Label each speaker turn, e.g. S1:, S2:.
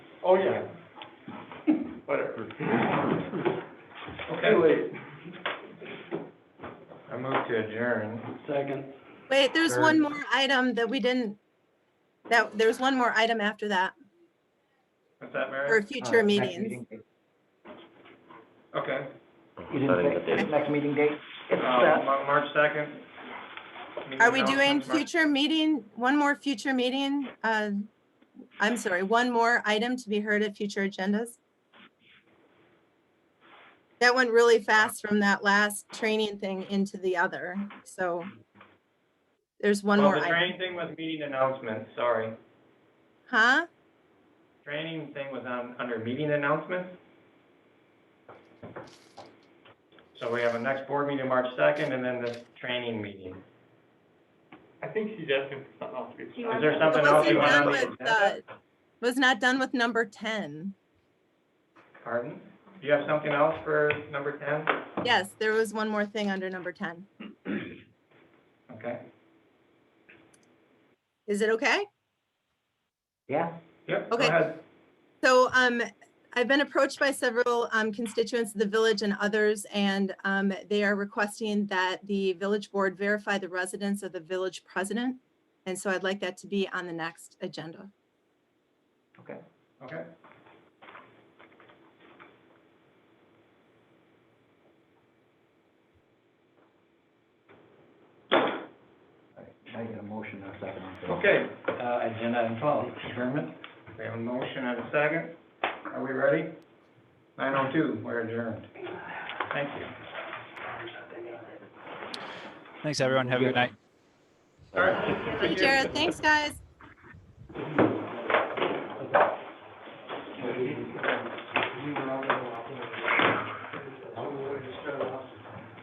S1: Oh, yeah. Whatever. Okay, wait. I move to adjourn.
S2: Second.
S3: Wait, there's one more item that we didn't, that, there's one more item after that
S1: What's that,
S3: for
S1: Mary?
S4: Uh,
S3: future meetings.
S1: Okay,
S4: You didn't say next meeting date?
S1: uh,
S4: It's, uh,
S1: Ma- March second.
S3: Are we doing future meeting, one more future meeting? uh, I'm sorry, one more item to be heard at future agendas? That went really fast from that last training thing into the other, so there's one
S1: Well,
S3: more
S1: Oh, the
S3: item.
S1: training thing was meeting announcements, sorry.
S3: Huh?
S1: Training thing was on, under meeting announcements. So we have a next board meeting, March second, and then this training meeting.
S5: I think she's asking for something else. to be
S6: Do you
S1: Is
S6: want
S5: said.
S1: there
S6: It
S1: something else you
S3: Wasn't
S1: want
S3: done
S1: on the
S3: with,
S1: agenda?
S3: uh, Was not done with number 10.
S1: Pardon? Do you have something else for number ten?
S3: Yes, there was one more thing under number 10.
S1: Okay.
S3: Is it okay?
S4: yeah,
S1: Yep, go
S3: Okay.
S1: ahead.
S3: So um, I've been approached by several um, constituents of the village and others, and um, they are requesting that the village board verify the residence of the village president. And so I'd like that to be on the next agenda.
S1: Okay.
S4: I get a motion or second. on that.
S1: Okay,
S2: Uh, agenda item twelve, adjournment.
S1: we have a motion and a second. Are we ready? Nine oh two, we're adjourned. Thank you.
S7: Thanks, everyone. Have a good night.
S1: All right.
S3: Hey, Jared, thanks, guys.